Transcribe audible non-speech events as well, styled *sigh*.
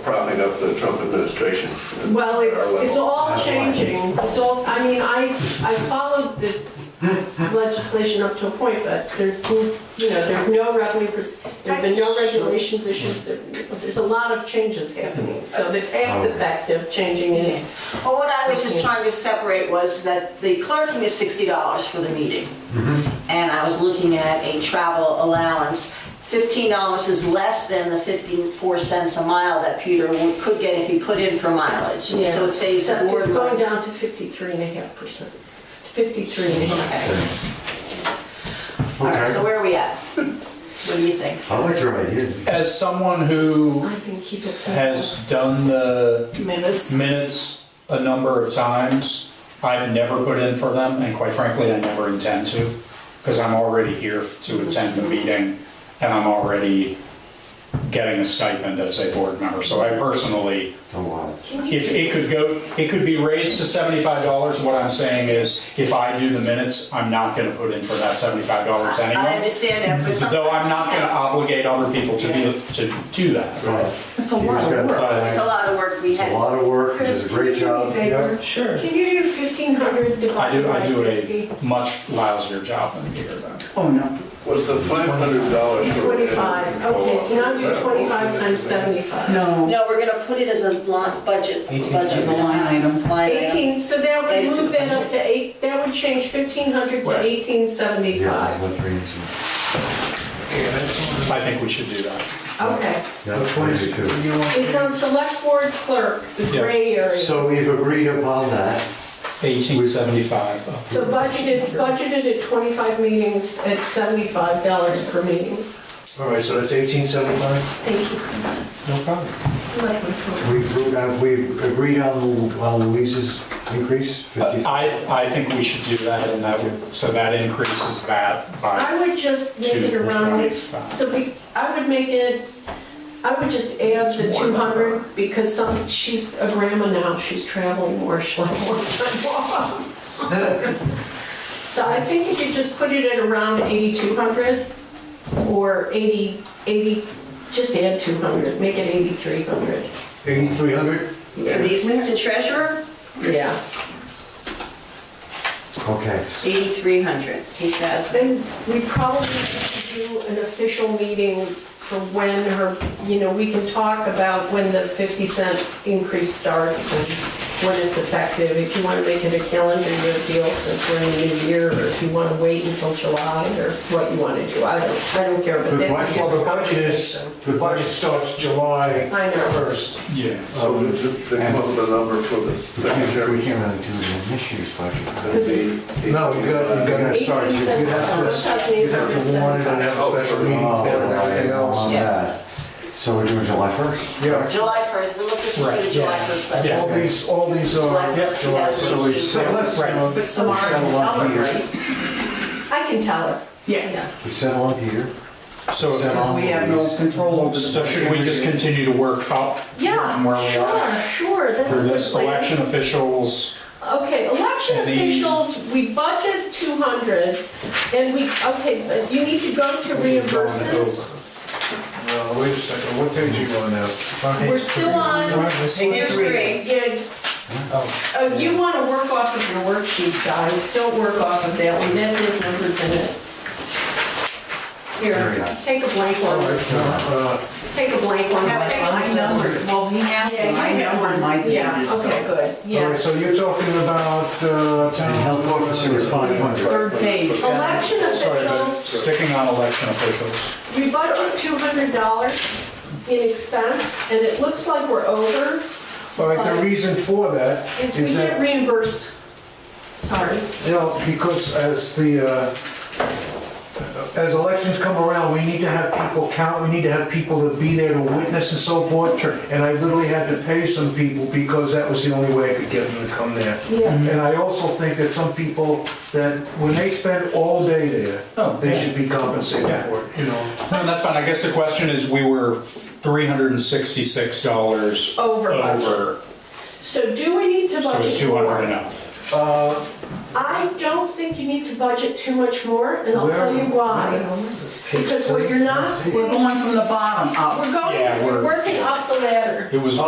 propping up the Trump administration. Well, it's, Our level. it's all changing, it's all, I mean, I, I followed the legislation up to a point, but there's, you know, there's no revenue, pers- there've been no regulations issues, there- there's a lot of changes happening, so the Oh. tax effective changing in. Well, what I was just trying to separate was that the clerking is sixty dollars for the meeting. And I was looking at a travel allowance. Fifteen dollars is less than the fifty-four cents a mile that Peter would- could get if he put in for mileage. So it saves the Except board It's going money. down to fifty-three and a half percent, fifty-three and a half. Okay. All right, so Okay, where are we at? What do you think? I like your idea. As someone who I think keep it simple. has done the minutes. minutes a number of times, I've never put in for them, and quite frankly, I never intend to, because I'm already here to attend the meeting, and I'm already getting a stipend as a board member. So I personally Oh, wow. If it could go, it could be raised to seventy-five dollars, what I'm saying is, if I do the minutes, I'm not gonna put in for that seventy-five dollars I anyway. understand that, but sometimes. Though I'm not gonna obligate other people to do, to do that. Right. It's a lot of work. It's a lot of work we It's a had. lot of work, you did a great job. Yeah. Sure. Can you do fifteen hundred I divided do, by I do sixty? a much lousier job than Peter though. Oh, no. Was the five hundred dollars for? Twenty-five, okay, so now do twenty-five times seventy-five. No. No, we're gonna put it as a line, budget. It's budget a line item. Line item. 18, so that would Add it to move that budget. up to eight, that would change 1,500 to Right. Yeah, 1,875. with three inches. I think we should do that. Okay. Yeah, maybe two. It's on select board clerk, the Yeah. gray area. So we've agreed upon that. Eighteen seventy-five. So budgeted, it's budgeted at 25 meetings at $75 per meeting. All right, so that's 1875? Thank you, Chris. No problem. I like my phone. We've, uh, we've agreed on on Louise's increase, 50. I, I think we should do that, and that, would- so that increases that I by, would just make it Two, which one around, is five? so we, I would make it, I would just add the 200 because some, she's a grandma now, she's traveling more, she'll have more time off. *laughs* So I think if you just put it at around 8,200 or 80, 80, just add 200, make it 8,300. 8300? For the assistant treasurer, Yeah. Okay. 8,300, 8,000. Then we probably should do an official meeting for when her, you know, we can talk about when the 50 cent increase starts and when it's effective. If you want to make it a calendar year deal since we're in the new year, or if you want to wait until July, or what you want to do, I don't, I don't care, but The that's a budget, well, different the budget is, conversation. the budget starts July I know. 1st. yeah. So we just they come up with a number for We the can't secretary. really do the issues budget. It'd be- No, you got, you got to start, you'd have to, you'd have to warn it and have Oh, a special meeting for it and everything else. On Yes. that. So we're doing July 1st? Yeah, July 1st, we'll look this through the Right, July yeah. 1st budget. all these, all these July are, 1st, July 2018. so we So let's, you know, we But settle Samara can tell on them, here. right? I can tell her. Yeah. We settle on here. So if Settle on We have no Louise. control over the. So should we just continue to work up from where Yeah, we are? sure, sure, that's a For good this plan. election officials, Okay, election And the- officials, we budget 200, and we, okay, but you need to go to reimbursements. No, Uh, wait a second, what page are you on now? We're still on, Here's three. yeah, uh, you want to work off of your worksheet, guys, don't work off of that one, that is numbers in it. There we Here, go. take a blank one, Uh, take a blank one. Have an I numbered, well, he has, Yeah, one. I you have numbered my one, yeah, pages, okay, good, so. All right, yeah. so you're talking about uh, And town health officer is 500. Third page. Election sorry, but officials, sticking on election officials. We budget two hundred dollars in expense, and it looks like we're over, All right, the reason for that is we is get that, reimbursed. Sorry. you know, because as the, uh, as elections come around, we need to have people count, we need to have people to be there to witness and so forth. And I literally had to pay some people because that was the only way I could get them to come there. Yeah. Mm-hmm. And I also think that some people, that when they spend all day there, Oh, they yeah. should be compensated Yeah. for it, you know? No, that's fine, I guess the question is, we were three hundred and sixty-six dollars Over budget. over, So do we need to so budget is two hundred more? enough? I don't think you need to budget too much more, and I'll Where- tell you why. Because what you're not We're seeing, going from the bottom up. we're going, Yeah, we're we're- working up the ladder. It was